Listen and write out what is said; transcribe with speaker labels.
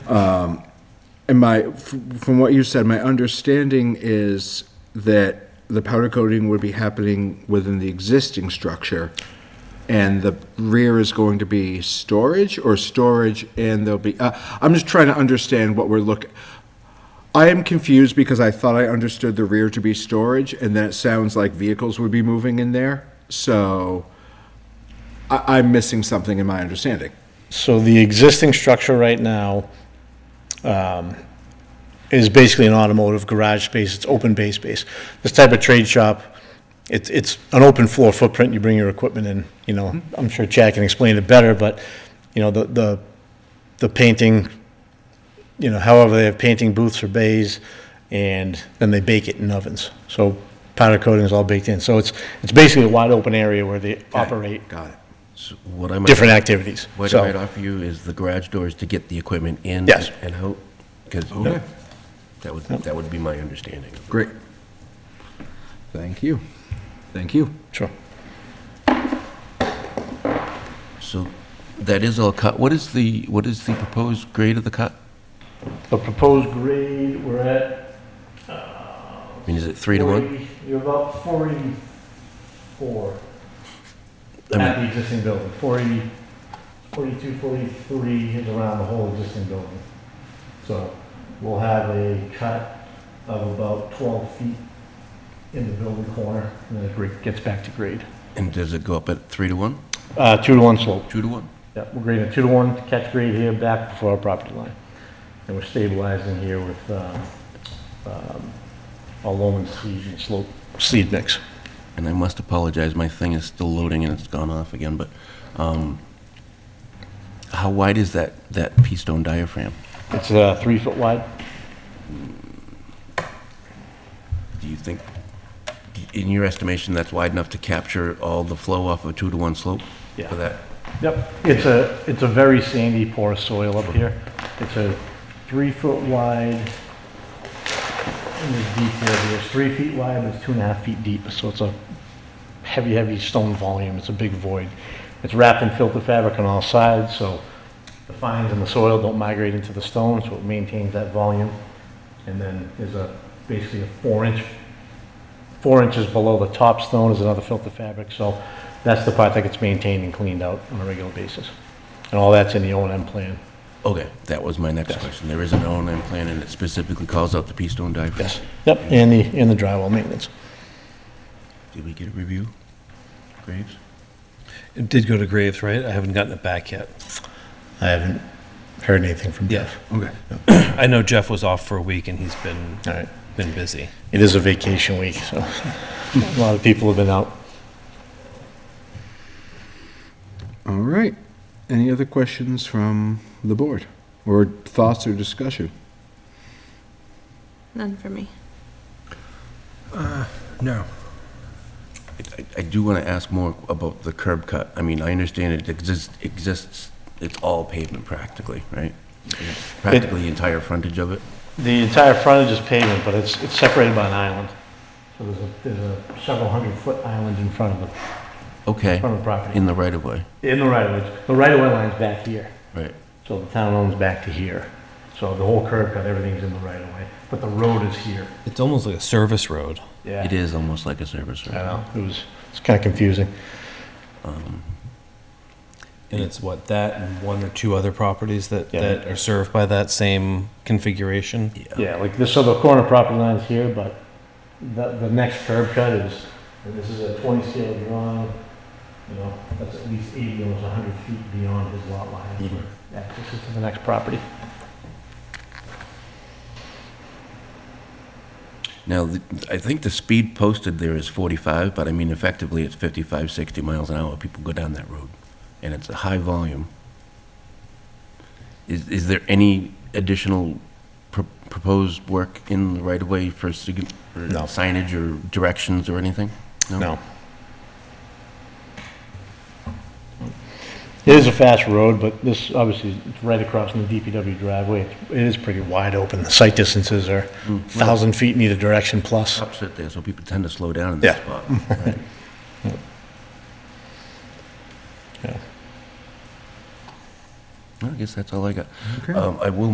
Speaker 1: And my, f- from what you said, my understanding is that the powder coating would be happening within the existing structure, and the rear is going to be storage, or storage, and there'll be, uh, I'm just trying to understand what we're looking, I am confused because I thought I understood the rear to be storage, and then it sounds like vehicles would be moving in there, so I, I'm missing something in my understanding.
Speaker 2: So the existing structure right now um, is basically an automotive garage space, it's open bay space. This type of trade shop, it's, it's an open floor footprint, you bring your equipment in, you know, I'm sure Chad can explain it better, but, you know, the, the, the painting, you know, however, they have painting booths or bays, and then they bake it in ovens. So powder coating is all baked in, so it's, it's basically a wide open area where they operate
Speaker 1: Got it.
Speaker 3: So What I might,
Speaker 2: different activities.
Speaker 3: what I
Speaker 2: So-
Speaker 3: might offer you is the garage doors to get the equipment in.
Speaker 2: Yes.
Speaker 3: And out, because
Speaker 1: Okay.
Speaker 3: that would, that would be my understanding.
Speaker 1: Great. Thank you. Thank you.
Speaker 2: Sure.
Speaker 3: So that is all cut. What is the, what is the proposed grade of the cut?
Speaker 2: The proposed grade, we're at.
Speaker 3: I mean, is it three to one?
Speaker 2: 40 You're about 44
Speaker 3: I
Speaker 2: at the existing building. 40, 42, 43 is around the whole existing building. So we'll have a cut of about 12 feet in the building corner, and then it gr- gets back to grade.
Speaker 3: And does it go up at three to one,
Speaker 2: Uh, two to one slope.
Speaker 3: two to one?
Speaker 2: Yeah, we're grading a two to one catch grade here back before our property line. And we're stabilizing here with, um, um, a loam and seed and slope. Seed mix.
Speaker 3: And I must apologize, my thing is still loading and it's gone off again, but, um, how wide is that, that pea stone diaphragm?
Speaker 2: It's, uh, three foot wide.
Speaker 3: Do you think, in your estimation, that's wide enough to capture all the flow off of a two to one slope?
Speaker 2: Yeah.
Speaker 3: For that?
Speaker 2: Yep, it's a, it's a very sandy porous soil up here. It's a three foot wide, and there's detail here, it's three feet wide, but it's two and a half feet deep, so it's a heavy, heavy stone volume, it's a big void. It's wrapped in filter fabric on all sides, so the fines in the soil don't migrate into the stone, so it maintains that volume. And then there's a, basically a four inch, four inches below the top stone is another filter fabric, so that's the part that gets maintained and cleaned out on a regular basis. And all that's in the O and M plan.
Speaker 3: Okay, that was my next question. There is an O and M plan, and it specifically calls out the pea stone diaphragm.
Speaker 2: Yep, and the, and the drywall maintenance.
Speaker 3: Did we get a review? Graves?
Speaker 4: It did go to Graves, right? I haven't gotten it back yet.
Speaker 2: I haven't heard anything from
Speaker 4: Yeah.
Speaker 2: Jeff.
Speaker 1: Okay.
Speaker 4: I know Jeff was off for a week and he's been,
Speaker 2: All right,
Speaker 4: been busy.
Speaker 2: it is a vacation week, so a lot of people have been out.
Speaker 1: All right. Any other questions from the board or thoughts or discussion?
Speaker 5: None for me.
Speaker 4: No.
Speaker 3: I- I- I do want to ask more about the curb cut. I mean, I understand it exists, exists, it's all pavement practically, right? Practically the entire frontage of it?
Speaker 2: The entire frontage is pavement, but it's, it's separated by an island. So there's a, there's a several hundred foot island in front of the,
Speaker 3: Okay,
Speaker 2: front of the property.
Speaker 3: in the right of way,
Speaker 2: In the right of way, the right of way line's back here.
Speaker 3: right?
Speaker 2: So the town owns back to here. So the whole curb cut, everything's in the right of way, but the road is here.
Speaker 4: It's almost like a service road.
Speaker 2: Yeah.
Speaker 3: It is almost like a service
Speaker 2: I
Speaker 3: road.
Speaker 2: know, it was, it's kind of confusing.
Speaker 4: And it's what, that and one or two other properties that,
Speaker 2: Yeah.
Speaker 4: that are served by that same configuration?
Speaker 2: Yeah, like this, so the corner property line's here, but the, the next curb cut is, and this is a twenty scale drawing, you know, that's at least eighty, almost hundred feet beyond his lot line. That's where
Speaker 3: Mm-hmm.
Speaker 2: Access is to the next property.
Speaker 3: Now, the- I think the speed posted there is 45, but I mean effectively it's 55, 60 miles an hour. People go down that road, and it's a high volume. Is, is there any additional pro- proposed work in the right-of-way for sig- for
Speaker 2: No.
Speaker 3: signage or directions or anything?
Speaker 2: No. It is a fast road, but this, obviously, it's right across from the DPW driveway. It is pretty wide open. The sight distances are
Speaker 3: Mm-hmm.
Speaker 2: 1,000 feet in either direction plus.
Speaker 3: Opposite there, so people tend to slow down in that
Speaker 2: Yeah.
Speaker 3: spot. right?
Speaker 2: Yeah.
Speaker 3: Well, I guess that's all I got.
Speaker 1: Okay. Uh,
Speaker 3: Um, I will